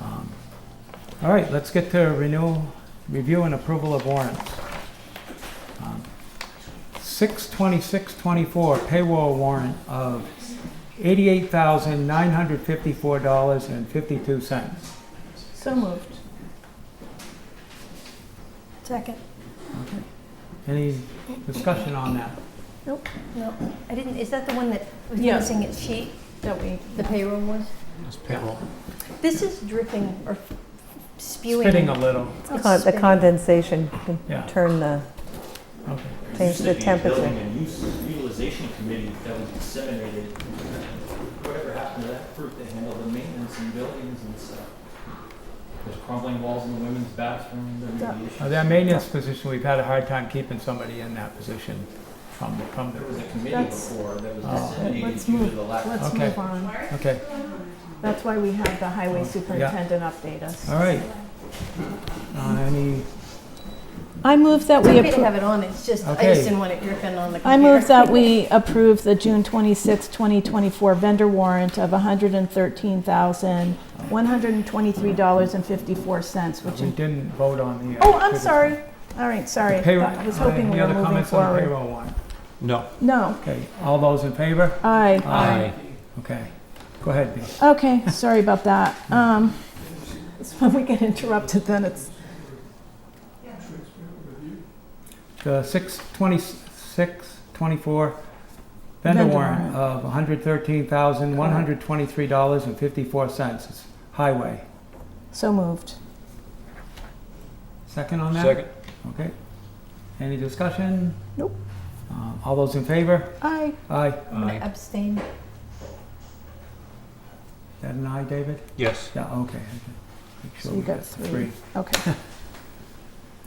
Um, All right, let's get to renewal, review and approval of warrants. Um, Six twenty-six twenty-four payroll warrant of eighty-eight thousand nine hundred fifty-four dollars and fifty-two cents. So moved. Second. Any discussion on that? Nope, nope. I didn't, is that the one that was Yeah. missing its sheet? That we, The payroll was? It's payroll. This is dripping or spewing. Spitting a little, It's Con- The spitting. condensation can yeah, turn the, okay. There Change used to the be a temperature. Building and use- utilization committee that was disseminated. Whatever happened to that group that handled the maintenance and buildings and stuff? There's crumbling walls in the women's bathroom, there Yeah. may be issues. Now, That maintenance position, we've had a hard time keeping somebody in that position from, the from There was the, a committee That's- before that was Oh. disseminated Let's due move. to the lack. let's Okay. move on. okay, That's why we have the highway superintendent update us. all right. Uh, any, I move that It's we, okay to appro- have it on, it's just, I Okay. just didn't want it dripping on the computer. I move that we approve the June 26, 2024 vendor warrant of $113,123.54, which, we in- didn't vote on the. uh, oh, I'm figures. sorry. All right, sorry. I Payroll- thought- I was uh, hoping we were Any other moving comments on the forward. payroll one? No. No, Okay, all those in favor? aye. Aye. Okay, go ahead, Dee. Okay, sorry about that. Um, it's When we get interrupted, then it's, The six twenty-six, twenty-four vendor Vendor warrant of one hundred thirteen thousand, one hundred twenty-three dollars and fifty-four cents. It's highway. so moved. Second on that? Second. Okay. Any discussion? Nope. Um, all those in favor? Aye. Aye. I'm gonna abstain. That an aye, David? Yes. Yeah, okay. okay. Make sure So you we got get the three. Uh, Okay.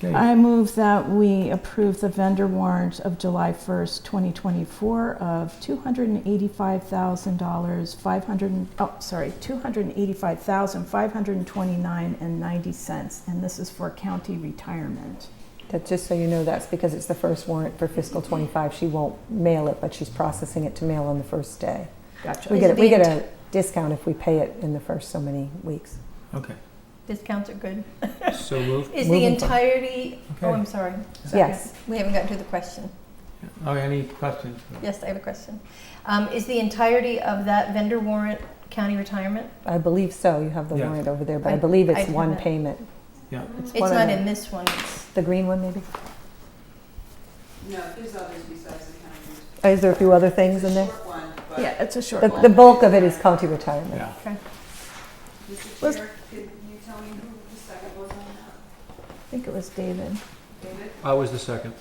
Okay. I move that we approve the vendor warrant of July 1st, 2024 of $285,000, 500, oh, sorry, $285,529.90. And this is for county retirement. that, just so you know, that's because it's the first warrant for fiscal '25. She won't mail it, but she's processing it to mail on the first day. Gotcha. We Is get, it we the get a discount if we pay it in the first so many weeks. Okay, Discounts are good. So moved. Is the Moving forward. entirety, oh, okay. I'm sorry. Yes. We haven't gotten to the question. Oh, any questions? Yes, I have a question. Um, is the entirety of that vendor warrant county retirement? I believe so. You have the Yeah. warrant over there, but I I- believe I it's do one that. payment. Yeah. It's one of not them. in this one, it's. The green one, maybe? No, there's others besides the county. Is there a few other things in there? Yeah, it's a short The, one. the bulk of it is county retirement. Yeah. Let's- I think it was David. I was the second.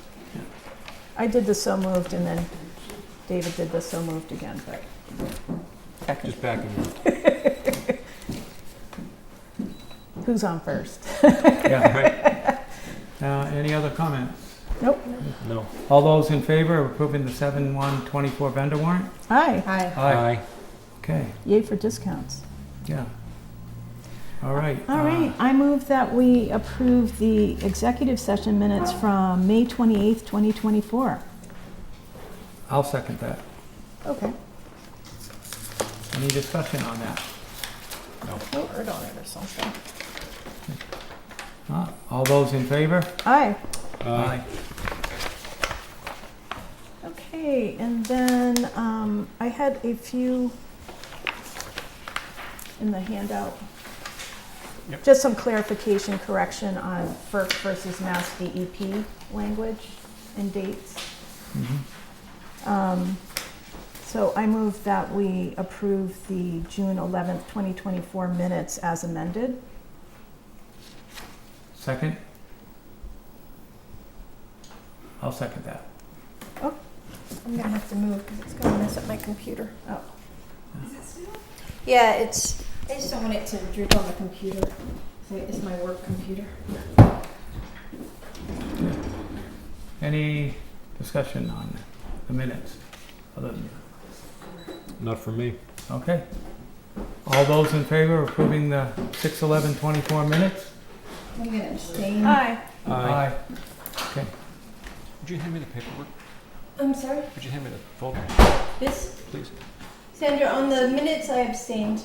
I did the so moved and then David did the so moved again, but Second. Just backing you. who's on first? Yeah. Right? Uh, any other comments? No. All those in favor of approving the seven one twenty-four vendor warrant? Aye, Hi. Aye. Okay, yay for discounts. yeah. All right. uh, All right, I move that we approve the executive session minutes from May 28th, 2024. uh, I'll second that. Okay. Any discussion on that? Word on it or something. Uh, All those in favor? Aye. Aye. Okay, and then um, I had a few in the handout. Yep. Just some clarification correction on FERC versus Mass DEP language and dates. Mhm. Um, So I move that we approve the June 11th, 2024 minutes as amended. Second? I'll second that. I'm gonna have to move because it's gonna mess up my computer. Oh. Yeah, it's, I just don't want it to droop on the computer. So It's my work computer. Any discussion on the minutes? Other than- Not for me. Okay. All those in favor of approving the six eleven twenty-four minutes? I'm gonna abstain. Aye. Would you hand me the paperwork? I'm sorry, Would you hand me the folder, this, please? Sandra, on the minutes I abstained.